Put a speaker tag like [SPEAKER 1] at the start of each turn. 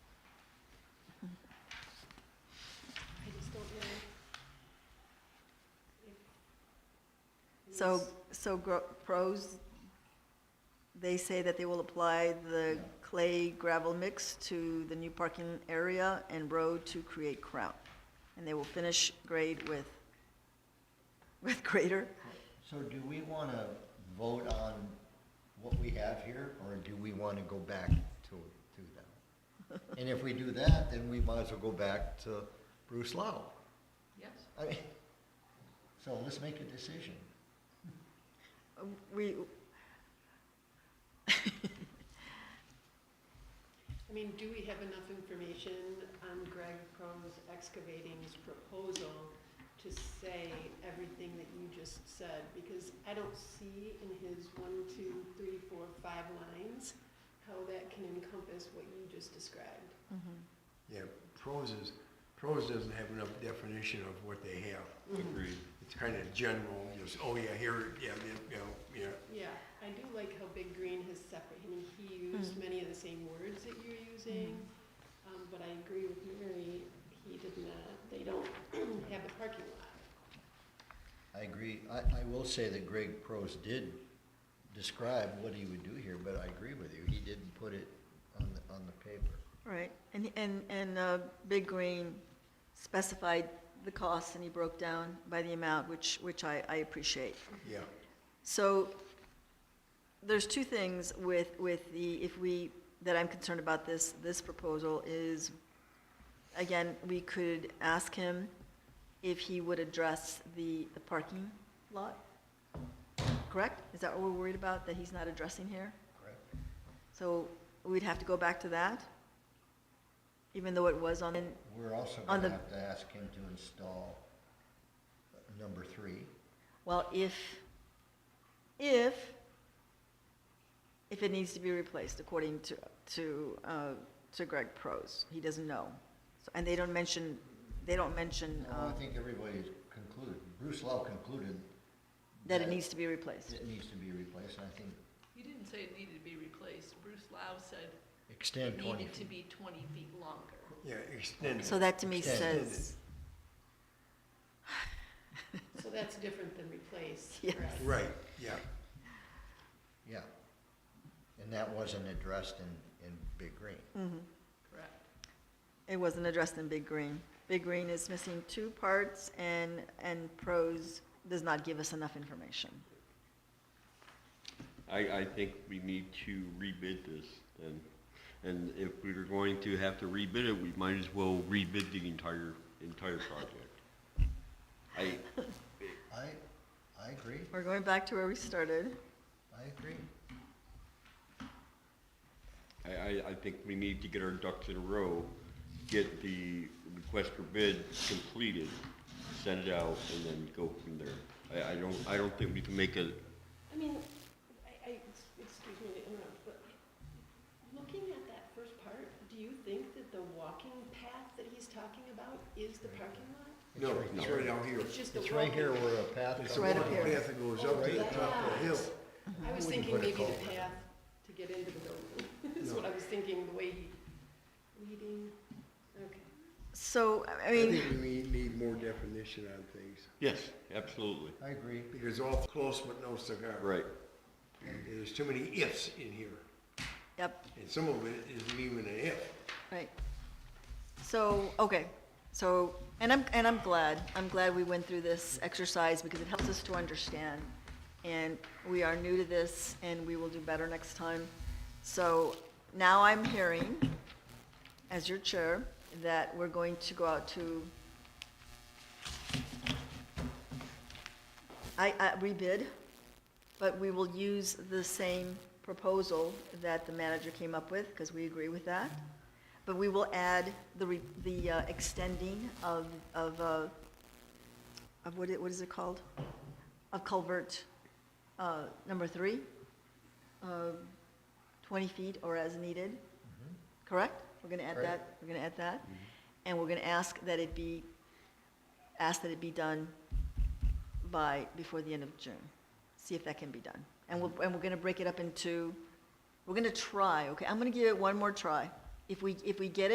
[SPEAKER 1] So, so gro- pros, they say that they will apply the clay gravel mix to the new parking area and road to create crown. And they will finish grade with, with grader.
[SPEAKER 2] So do we want to vote on what we have here, or do we want to go back to, to them? And if we do that, then we might as well go back to Bruce Lau.
[SPEAKER 3] Yes.
[SPEAKER 2] I mean, So let's make a decision.
[SPEAKER 1] We,
[SPEAKER 3] I mean, do we have enough information on Greg Pro's excavating's proposal to say everything that you just said? Because I don't see in his one, two, three, four, five lines how that can encompass what you just described.
[SPEAKER 4] Yeah, pros is, pros doesn't have enough definition of what they have.
[SPEAKER 1] Mm-hmm.
[SPEAKER 5] Agreed.
[SPEAKER 4] It's kind of general, just, oh yeah, here, yeah, yeah, you know, yeah.
[SPEAKER 3] Yeah, I do like how Big Green has separate, I mean, he used many of the same words that you're using, um, but I agree with Mary, he did not, they don't have the parking lot.
[SPEAKER 2] I agree, I, I will say that Greg Prose did describe what he would do here, but I agree with you, he didn't put it on the, on the paper.
[SPEAKER 1] right, and, and, and uh, Big Green specified the costs and he broke down by the amount, which, which I, I appreciate.
[SPEAKER 4] Yeah,
[SPEAKER 1] So there's two things with, with the, if we, that I'm concerned about this, this proposal is, again, we could ask him if he would address the, the parking lot, correct? Is that what we're worried about, that he's not addressing here?
[SPEAKER 2] Correct.
[SPEAKER 1] So we'd have to go back to that, even though it was on,
[SPEAKER 2] We're also
[SPEAKER 1] On
[SPEAKER 2] going
[SPEAKER 1] the-
[SPEAKER 2] to have to ask him to install uh, number three.
[SPEAKER 1] well, if, if, if it needs to be replaced according to, to, uh, to Greg Prose. He doesn't know. So- And they don't mention, they don't mention,
[SPEAKER 2] Well,
[SPEAKER 1] uh,
[SPEAKER 2] I think everybody's concluded, Bruce Lau concluded.
[SPEAKER 1] that it needs to be replaced.
[SPEAKER 2] It needs to be replaced, and I think
[SPEAKER 6] You didn't say it needed to be replaced. Bruce Lau said
[SPEAKER 2] extend
[SPEAKER 6] it
[SPEAKER 2] twenty
[SPEAKER 6] needed to
[SPEAKER 2] feet.
[SPEAKER 6] be twenty feet longer.
[SPEAKER 4] yeah, extended.
[SPEAKER 1] So that to me
[SPEAKER 2] Extended.
[SPEAKER 1] says,
[SPEAKER 3] So that's different than replace,
[SPEAKER 1] Yes.
[SPEAKER 3] correct?
[SPEAKER 4] Right, yeah,
[SPEAKER 2] Yeah. And that wasn't addressed in, in Big Green.
[SPEAKER 1] Mm.
[SPEAKER 6] Correct.
[SPEAKER 1] it wasn't addressed in Big Green. Big Green is missing two parts and, and Prose does not give us enough information.
[SPEAKER 5] I, I think we need to rebid this then. And if we were going to have to rebid it, we might as well rebid the entire, entire project. I,
[SPEAKER 2] I, I agree,
[SPEAKER 1] We're going back to where we started.
[SPEAKER 2] I agree.
[SPEAKER 5] I, I, I think we need to get our ducks in a row, get the request for bid completed, send it out, and then go from there. I, I don't, I don't think we can make a,
[SPEAKER 3] I mean, I, I, excuse me to interrupt, but looking at that first part, do you think that the walking path that he's talking about is the parking lot?
[SPEAKER 2] It's
[SPEAKER 4] no,
[SPEAKER 2] right
[SPEAKER 4] it's
[SPEAKER 2] here.
[SPEAKER 4] right out here.
[SPEAKER 3] It's just the
[SPEAKER 2] It's right
[SPEAKER 3] walking. Oh,
[SPEAKER 2] here where a path
[SPEAKER 4] It's
[SPEAKER 2] comes.
[SPEAKER 4] the
[SPEAKER 1] right
[SPEAKER 4] one
[SPEAKER 1] up here.
[SPEAKER 4] path that goes up to the top of the hill.
[SPEAKER 3] I was
[SPEAKER 2] Wouldn't
[SPEAKER 3] thinking
[SPEAKER 2] put a
[SPEAKER 3] maybe the
[SPEAKER 2] culvert.
[SPEAKER 3] path to get into the building, is
[SPEAKER 4] No.
[SPEAKER 3] what I was thinking, the way he, leading, okay.
[SPEAKER 1] So, I- I
[SPEAKER 4] I
[SPEAKER 1] mean.
[SPEAKER 4] think we need more definition on things,
[SPEAKER 5] yes, absolutely,
[SPEAKER 2] I agree,
[SPEAKER 4] because all close but no cigar.
[SPEAKER 5] right.
[SPEAKER 4] And There's too many ifs in here,
[SPEAKER 1] Yep,
[SPEAKER 4] and some of it isn't even an if.
[SPEAKER 1] right. So, okay, so, and I'm, and I'm glad, I'm glad we went through this exercise because it helps us to understand. And we are new to this and we will do better next time. So now I'm hearing, as your chair, that we're going to go out to I, I rebid, but we will use the same proposal that the manager came up with, because we agree with that. But we will add the, re- the uh, extending of, of, uh, of what it, what is it called? Of culvert, uh, number three, uh, twenty feet or as needed, correct? We're gonna add
[SPEAKER 2] Correct.
[SPEAKER 1] that, we're gonna add that, and we're gonna ask that it be, ask that it be done by, before the end of June. See if that can be done. And we'll, and we're gonna break it up into, we're gonna try, okay? I'm gonna give it one more try. If we, if we get it.